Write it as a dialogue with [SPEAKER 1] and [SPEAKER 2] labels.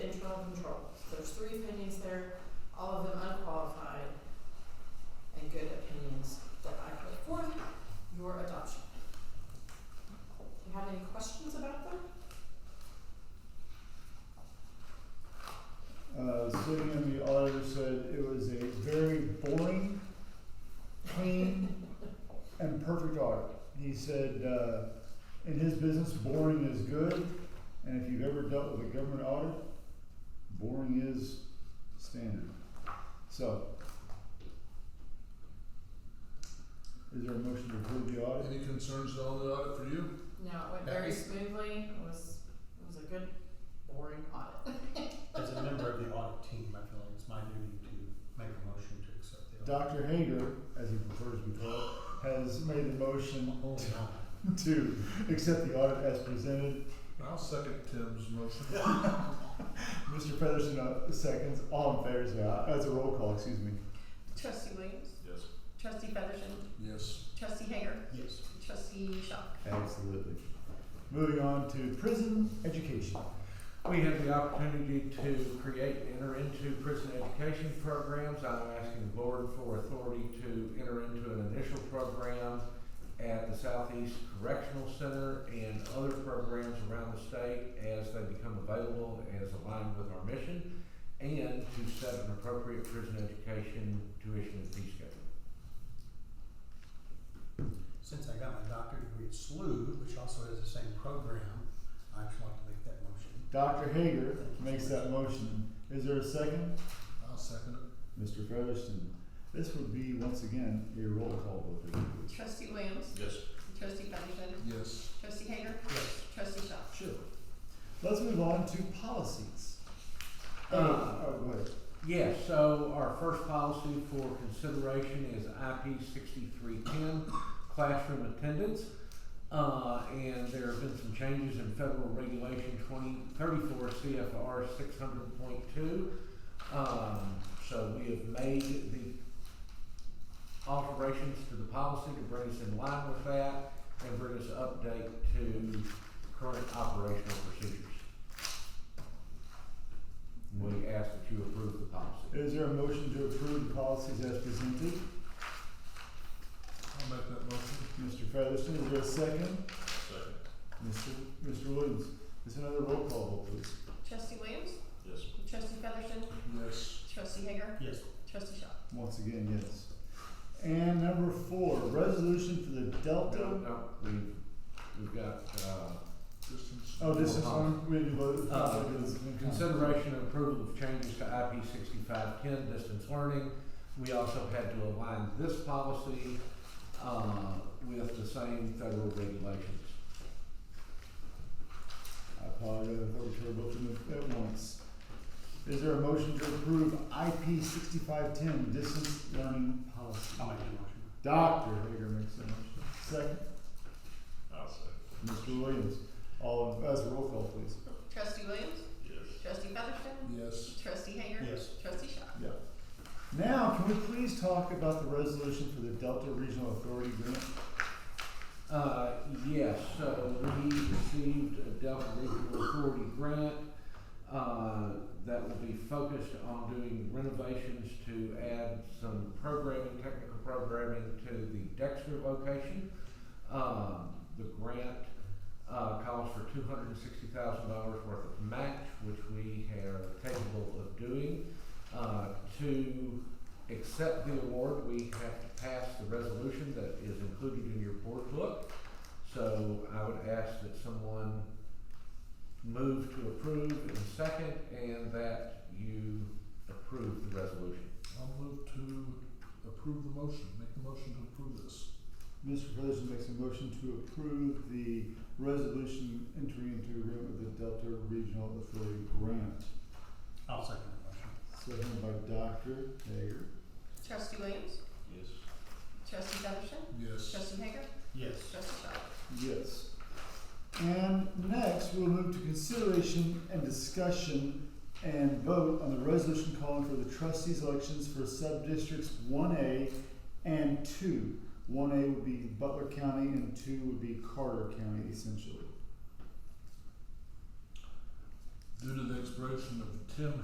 [SPEAKER 1] There's three opinions there, all of them unqualified and good opinions that I put forth your adoption. Do you have any questions about them?
[SPEAKER 2] Uh, sitting in the auditor said it was a very boring, clean, and perfect audit. He said, uh, in his business, boring is good, and if you've ever dealt with a government audit, boring is standard. So, is there a motion to approve the audit?
[SPEAKER 3] Any concerns on the audit for you?
[SPEAKER 1] No, it went very smoothly, it was, it was a good, boring audit.
[SPEAKER 4] As a member of the audit team, I feel like it's my duty to make a motion to accept the
[SPEAKER 2] Dr.
[SPEAKER 4] audit.
[SPEAKER 2] Hager, as he prefers to be called, has made the motion
[SPEAKER 4] Oh, no.
[SPEAKER 2] to accept the audit as presented.
[SPEAKER 3] I'll second Tim's motion.
[SPEAKER 2] Mr. Featherston uh, seconds. All in favor say aye. That's a roll call, excuse me.
[SPEAKER 5] Trustee Williams,
[SPEAKER 3] Yes.
[SPEAKER 5] trustee Featherston,
[SPEAKER 3] Yes.
[SPEAKER 5] trustee Hager,
[SPEAKER 4] Yes.
[SPEAKER 5] trustee Shock.
[SPEAKER 2] Absolutely. Moving on to prison education.
[SPEAKER 6] We have the opportunity to create and enter into prison education programs. I'm asking the board for authority to enter into an initial program at the Southeast Correctional Center and other programs around the state as they become available, as aligned with our mission, and to set an appropriate prison education tuition and fee schedule.
[SPEAKER 4] Since I got my doctorate degree at SLU, which also has the same program, I just want to make that motion.
[SPEAKER 2] Dr. Hager makes that motion. Is there a second?
[SPEAKER 3] I'll second it.
[SPEAKER 2] Mr. Featherston, this would be once again a roll call vote. if you would.
[SPEAKER 5] Trustee Williams,
[SPEAKER 3] Yes.
[SPEAKER 5] trustee Featherston,
[SPEAKER 3] Yes.
[SPEAKER 5] trustee Hager,
[SPEAKER 4] Yes.
[SPEAKER 5] trustee Shock.
[SPEAKER 2] Sure. Let's move on to policies. Uh,
[SPEAKER 6] Uh,
[SPEAKER 2] oh, go ahead.
[SPEAKER 6] Yes, so our first policy for consideration is IP sixty-three ten, classroom attendance. Uh, and there have been some changes in federal regulation twenty, thirty-four CFR six hundred point two. Um, so we have made the alterations to the policy to bring us in line with that and bring us update to current operational procedures. We ask that you approve the policy.
[SPEAKER 2] Is there a motion to approve the policies as presented?
[SPEAKER 3] I'll make that motion.
[SPEAKER 2] Mr. Featherston, is there a second?
[SPEAKER 3] Second.
[SPEAKER 2] Mr. Mr. Williams, is another roll call vote, please?
[SPEAKER 5] Trustee Williams,
[SPEAKER 3] Yes.
[SPEAKER 5] trustee Featherston,
[SPEAKER 3] Yes.
[SPEAKER 5] trustee Hager,
[SPEAKER 4] Yes.
[SPEAKER 5] trustee Shock.
[SPEAKER 2] Once again, yes. And number four, resolution for the
[SPEAKER 6] No,
[SPEAKER 2] Delta.
[SPEAKER 6] no, we've, we've got, uh,
[SPEAKER 3] Distance.
[SPEAKER 2] Oh, this is one, we didn't vote.
[SPEAKER 6] Uh, consideration and approval of changes to IP sixty-five ten, distance learning. We also had to align this policy, uh, with the same federal regulations.
[SPEAKER 2] I apologize, I thought we should have voted them at once. Is there a motion to approve IP sixty-five ten, distance learning policy?
[SPEAKER 4] I'll make the motion.
[SPEAKER 2] Dr. Hager makes a motion. Second,
[SPEAKER 3] I'll second.
[SPEAKER 2] Mr. Williams. All, in- that's a roll call, please.
[SPEAKER 5] Trustee Williams,
[SPEAKER 3] Yes.
[SPEAKER 5] trustee Featherston,
[SPEAKER 3] Yes.
[SPEAKER 5] trustee Hager,
[SPEAKER 4] Yes.
[SPEAKER 5] trustee Shock.
[SPEAKER 2] Yeah. Now, can we please talk about the resolution for the Delta Regional Authority grant?
[SPEAKER 6] Uh, yes, so we received a Delta Regional Authority grant, uh, that will be focused on doing renovations to add some programming, technical programming to the Dexter location. Um, the grant, uh, calls for two hundred and sixty thousand dollars worth of match, which we are capable of doing. Uh, to accept the award, we have to pass the resolution that is included in your board book. So I would ask that someone move to approve in second and that you approve the resolution.
[SPEAKER 3] I'll move to approve the motion. Make the motion to approve this.
[SPEAKER 2] Mr. Featherston makes a motion to approve the resolution entering into agreement with the Delta Regional Authority grant.
[SPEAKER 4] I'll second the motion.
[SPEAKER 2] Seconded by Dr. Hager.
[SPEAKER 5] Trustee Williams,
[SPEAKER 3] Yes.
[SPEAKER 5] trustee Featherston,
[SPEAKER 3] Yes.
[SPEAKER 5] trustee Hager,
[SPEAKER 4] Yes.
[SPEAKER 5] trustee Shock.
[SPEAKER 2] Yes. And next, we'll move to consideration and discussion and vote on the resolution calling for the trustees' elections for sub-districts one A and two. One A would be Butler County and two would be Carter County essentially.
[SPEAKER 3] Due to the expiration of Tim